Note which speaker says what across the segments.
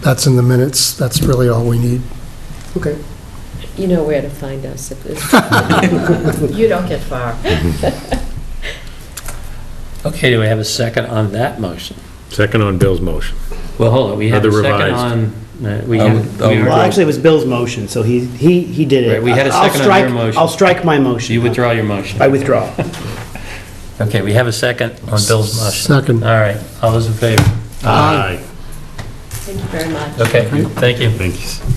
Speaker 1: That's in the minutes, that's really all we need.
Speaker 2: Okay.
Speaker 3: You know where to find us. if it's- You don't get far.
Speaker 4: Okay, do we have a second on that motion?
Speaker 5: Second on Bill's motion.
Speaker 4: Well, hold on, we had a
Speaker 5: Other
Speaker 4: second
Speaker 5: revised.
Speaker 4: on, uh, we
Speaker 6: Oh,
Speaker 4: had,
Speaker 6: oh,
Speaker 4: we
Speaker 2: Well,
Speaker 4: were-
Speaker 2: actually, it was Bill's motion, so he, he, he did
Speaker 4: Right,
Speaker 2: it.
Speaker 4: we had a
Speaker 2: I'll
Speaker 4: second on your
Speaker 2: strike-
Speaker 4: motion.
Speaker 2: I'll strike my motion.
Speaker 4: you withdraw your motion.
Speaker 2: I withdraw.
Speaker 4: Okay, we have a second on Bill's motion.
Speaker 1: Second.
Speaker 4: All right, all those in favor?
Speaker 1: Uh,
Speaker 5: Aye.
Speaker 3: Thank you very much.
Speaker 4: Okay, thank you.
Speaker 5: Thank you.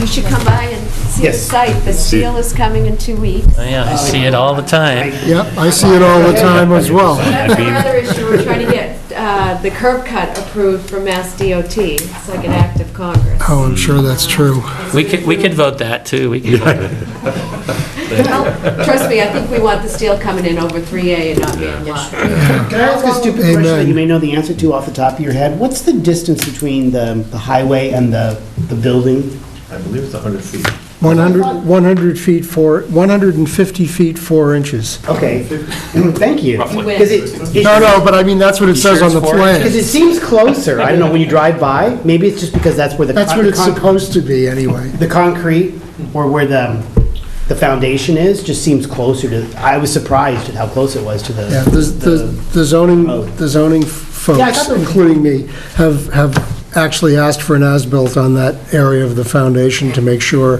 Speaker 7: You should come by and see the
Speaker 2: Yes.
Speaker 7: site. The
Speaker 5: See it.
Speaker 7: seal is coming in two weeks.
Speaker 4: Oh, Yeah, I see it all the time.
Speaker 1: Yep, I see it all the time as well.
Speaker 7: That's another issue. We're trying to get uh, the curb cut approved from Mass DOT. It's like an act of Congress.
Speaker 1: Oh, I'm sure that's true.
Speaker 4: We could, we could vote that, too. We could vote it.
Speaker 7: Well, Trust me, I think we want the steel coming in over 3A and not being blocked.
Speaker 2: Can I ask a stupid question that
Speaker 1: Amen.
Speaker 2: you may know the answer to off the top of your head? What's the distance between the, the highway and the, the building?
Speaker 8: I believe it's 100 feet.
Speaker 1: 100, 100 feet, 4, 150 feet, 4 inches.
Speaker 2: Okay, thank you.
Speaker 7: You win.
Speaker 2: Because it,
Speaker 1: No, no, but I mean, that's what it says on the
Speaker 2: because
Speaker 1: plan.
Speaker 2: it seems closer. I don't know, when you drive by, maybe it's just because that's where the.
Speaker 1: That's
Speaker 2: con-
Speaker 1: what it's
Speaker 2: con-
Speaker 1: supposed to be, anyway.
Speaker 2: The concrete, or where the, the foundation is, just seems closer to, I was surprised at how close it was to the.
Speaker 1: Yeah, the- the the zoning, the zoning
Speaker 2: Yeah, I
Speaker 1: folks,
Speaker 2: thought they were-
Speaker 1: including me, have, have actually asked for an as-built on that area of the foundation to make sure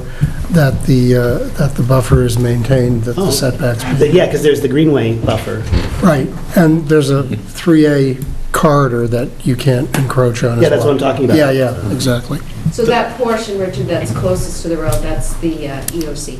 Speaker 1: that the, uh, that the buffer is maintained, that the
Speaker 2: Oh.
Speaker 1: setbacks.
Speaker 2: the- Yeah, because there's the greenway buffer.
Speaker 1: Right, and there's a 3A corridor that you can't encroach on as well.
Speaker 2: Yeah, that's what I'm talking about.
Speaker 1: Yeah, yeah, exactly.
Speaker 7: So that portion, Richard, that's closest to the road, that's the uh, EOC.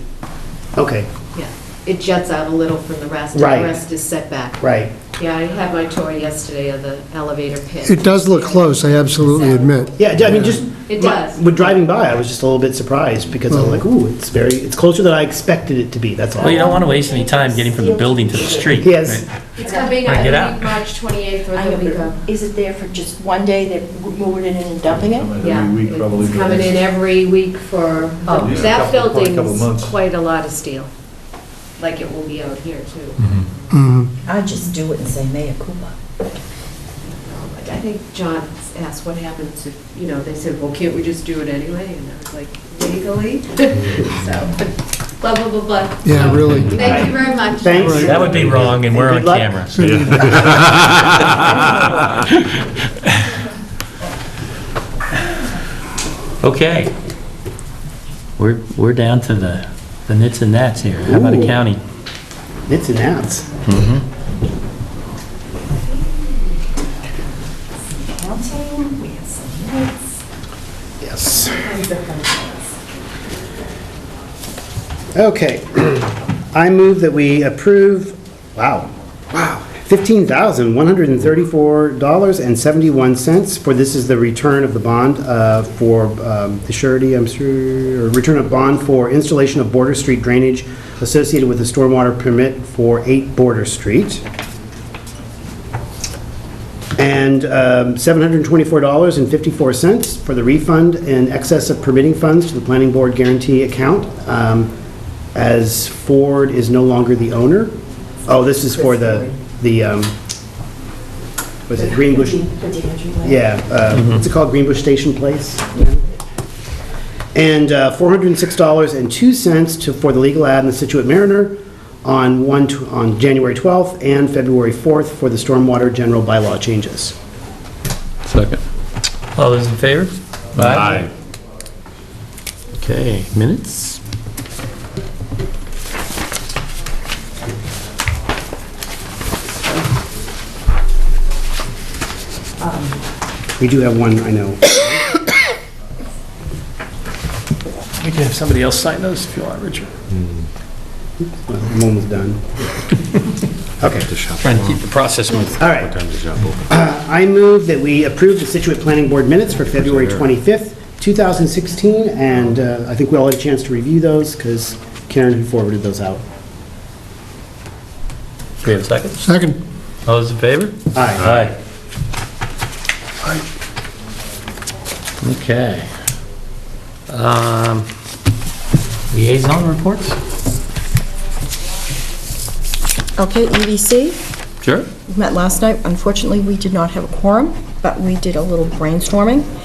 Speaker 2: Okay,
Speaker 7: Yeah. It juts out a little from the rest. and
Speaker 2: Right.
Speaker 7: The rest is set back.
Speaker 2: right.
Speaker 7: Yeah, I had my tour yesterday of the elevator pit.
Speaker 1: It does look close, I absolutely admit.
Speaker 2: Yeah, I mean, just.
Speaker 7: It does.
Speaker 2: With driving by, I was just a little bit surprised because I'm like, ooh, it's very, it's closer than I expected it to be, that's all.
Speaker 4: Well, you don't want to waste any time getting from the building to the street.
Speaker 2: Yes.
Speaker 4: right?
Speaker 7: It's coming,
Speaker 4: Bring
Speaker 7: I
Speaker 4: it
Speaker 7: think,
Speaker 4: out.
Speaker 7: March 28th or
Speaker 9: I
Speaker 7: the
Speaker 9: know,
Speaker 7: week of.
Speaker 9: but Is it there for just one day, they're moving it in and dumping it?
Speaker 7: Yeah,
Speaker 8: Every week, probably.
Speaker 7: it's coming in every week for,
Speaker 8: At least a
Speaker 7: that
Speaker 8: couple- probably a couple
Speaker 7: building's
Speaker 8: months.
Speaker 7: quite a lot of steel, like it will be out here too.
Speaker 8: Mm-hmm.
Speaker 1: Mhm.
Speaker 9: I'd just do it and say mea culpa.
Speaker 7: But I think John asked what happens if, you know, they said, well, can't we just do it anyway? And I was like, legally? So, blah, blah, blah, blah.
Speaker 1: Yeah,
Speaker 7: So,
Speaker 1: really.
Speaker 7: Thank you very much.
Speaker 2: Thanks.
Speaker 1: Right.
Speaker 4: That would be wrong, and we're on
Speaker 2: Good luck.
Speaker 4: camera. so- Okay. We're, we're down to the, the nits and gnats here. How about a
Speaker 2: Ooh.
Speaker 4: county?
Speaker 2: It's and outs.
Speaker 7: Mm-hmm.
Speaker 9: Counting, we have some lights.
Speaker 2: Yes. Okay. I move that we approve, wow, wow, $15,134.71, for this is the return of the bond uh, for um, the surety, I'm sure, or return of bond for installation of border street drainage associated with the stormwater permit for 8 Border Street. And um, $724.54 for the refund in excess of permitting funds to the planning board guarantee account, um, as Ford is no longer the owner. Oh, this is for the, the, um, was it Green Bush?
Speaker 9: The Deirdre light.
Speaker 2: Yeah, uh, what's it called, Greenbush Station Place? Yeah. And uh, $406.02 to, for the legal ad in the Situate Mariner on 1, tw- on January 12th and February 4th for the stormwater general bylaw changes.
Speaker 6: Second.
Speaker 4: All those in favor?
Speaker 5: Aye.
Speaker 4: Okay, minutes?
Speaker 2: We do have one, I know.
Speaker 4: We can have somebody else sign those if you want, Richard.
Speaker 2: Hmm. Well, I'm almost done. Okay,
Speaker 4: Trying to keep the process moving.
Speaker 2: all right. Uh, I move that we approve the Situate Planning Board minutes for February 25th, 2016, and uh, I think we all had a chance to review those because Karen had forwarded those out.
Speaker 4: Do we have a second?
Speaker 1: Second,
Speaker 4: All those in favor?
Speaker 2: Aye.
Speaker 4: Aye. Okay. Um, Liaison reports?
Speaker 10: Okay, E EDC,
Speaker 4: Sure.
Speaker 10: we met last night. Unfortunately, we did not have a quorum, but we did a little brainstorming.